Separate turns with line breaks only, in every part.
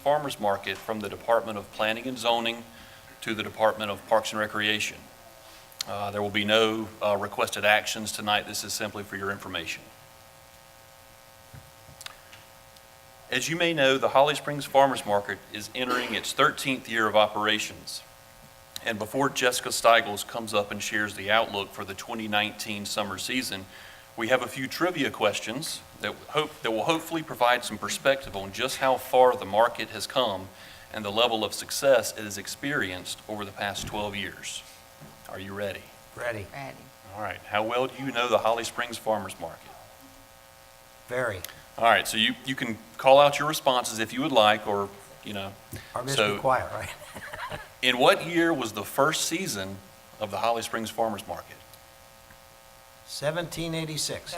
farmer's market from the Department of Planning and Zoning to the Department of Parks and Recreation. Uh, There will be no uh, requested actions tonight. This is simply for your information. As you may know, the Holly Springs Farmers Market is entering its 13th year of operations. And before Jessica Steigels comes up and shares the outlook for the 2019 summer season, we have a few trivia questions that hope, that will hopefully provide some perspective on just how far the market has come and the level of success it has experienced over the past 12 years. Are you ready?
Ready.
Ready.
All right, how well do you know the Holly Springs Farmers Market?
Very.
All right, so you, you can call out your responses if you would like, or, you know.
Or just
So-
be quiet, right?
In what year was the first season of the Holly Springs Farmers Market?
1786.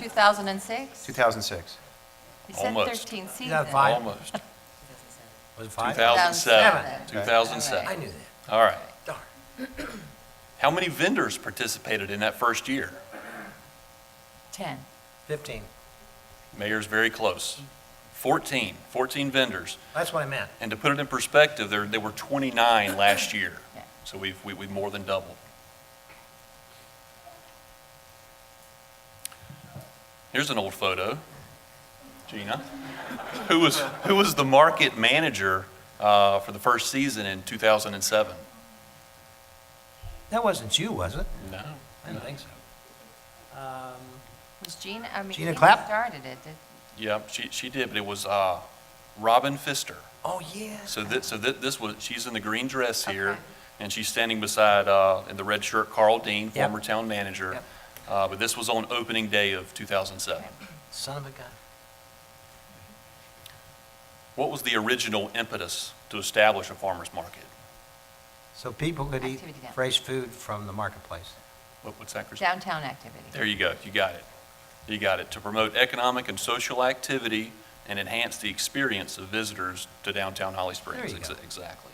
2006?
2006.
You said
Almost.
13 season.
Yeah, five.
Almost.
Was it five?
2007.
2007.
2007.
I knew that.
All right.
Darn.
How many vendors participated in that first year?
10.
15.
Mayor's very close. 14, 14 vendors.
That's what I meant.
And to put it in perspective, there, there were 29 last year.
Yeah.
So we've, we- we've more than doubled. Here's an old photo. Gina, who was, who was the market manager uh, for the first season in 2007?
That wasn't you, was it?
No.
I didn't think so. Um,
Was Gina, I mean.
Gina
Gina
Clapp?
Started it. did-
Yeah, she, she did, but it was uh, Robin Pfister.
Oh, yes.
So this, so thi- this was, she's in the green dress here,
Okay.
and she's standing beside, uh, in the red shirt, Carl Dean,
Yep.
former town manager.
Yep.
Uh, But this was on opening day of 2007.
Son of a gun.
What was the original impetus to establish a farmer's market?
So people could eat
Activity down.
fresh food from the marketplace.
What- What's that, Christine?
Downtown activity.
There you go, you got it. You got it. To promote economic and social activity and enhance the experience of visitors to downtown Holly Springs.
you
Ex-
go.
Exactly.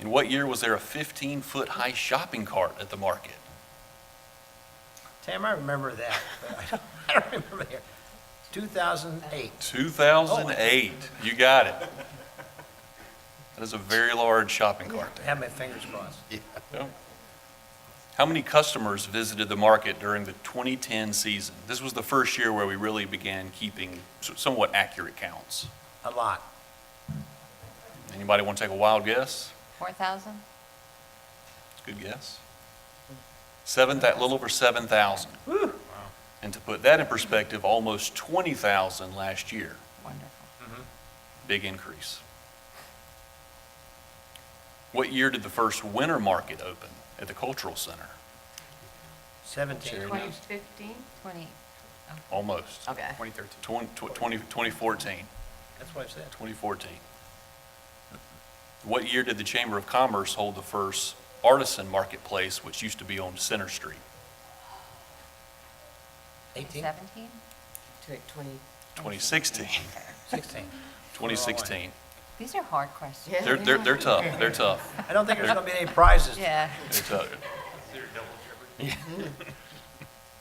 In what year was there a 15-foot high shopping cart at the market?
Tam, I remember that, but I don't- I don't remember the year. 2008.
2008, you got it. That is a very large shopping cart
I
there.
Have my fingers crossed.
How many customers visited the market during the 2010 season? This was the first year where we really began keeping s- somewhat accurate counts.
A lot.
Anybody want to take a wild guess?
4,000?
Good guess. Seven, that little over 7,000. And to put that in perspective, almost 20,000 last year.
Wonderful.
Big increase. What year did the first winter market open at the Cultural Center?
17.
Sherry.
Twenty fifteen?
20,
Almost.
Okay.
2013. 2014,
That's what I said.
2014. What year did the Chamber of Commerce hold the first artisan marketplace, which used to be on Center Street?
18,
17?
Twenty.
2016.
16.
2016.
These are hard questions.
Oh, Yeah.
They're, they're, they're tough, they're tough,
I don't think there's going to be any prizes.
Yeah.
they're tough.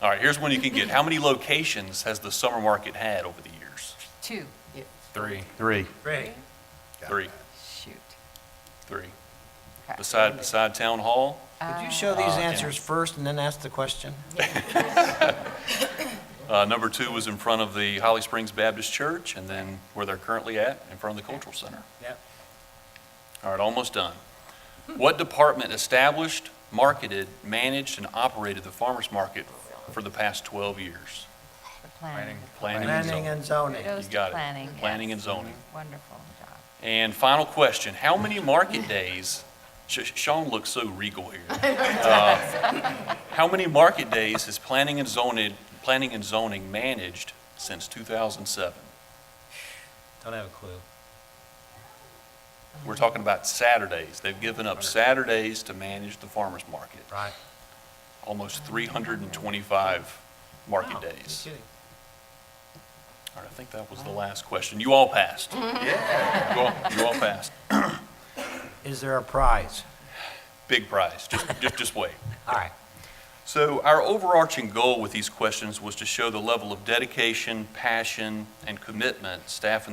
All right, here's one you can get. How many locations has the summer market had over the years?
Two.
Three.
Three.
Ready?
Three,
Shoot.
three.
Crap.
Beside, beside Town Hall,
Could you show these
Uh, yeah.
answers first and then ask the question?
uh, number two was in front of the Holly Springs Baptist Church, and then where they're currently at, in front of the Cultural Center.
Yep.
All right, almost done. What department established, marketed, managed, and operated the farmer's market for the past 12 years?
The planning.
Planning and
Planning
zoning.
and zoning.
Kudos
You
to
got it.
planning. yes.
Planning and zoning.
Wonderful job.
And final question, how many market days, Sh- Sean looks so regal here. Uh, How many market days has planning and zoning, planning and zoning managed since 2007?
Don't have a clue.
We're talking about Saturdays. They've given up Saturdays to manage the farmer's market.
Right.
Almost 325 market
Wow,
days.
you're kidding.
All right, I think that was the last question. You all passed. Yeah. You all, you all passed.
Is there a prize?
Big prize. Just, just, just wait.
All right.
So our overarching goal with these questions was to show the level of dedication, passion, and commitment staff in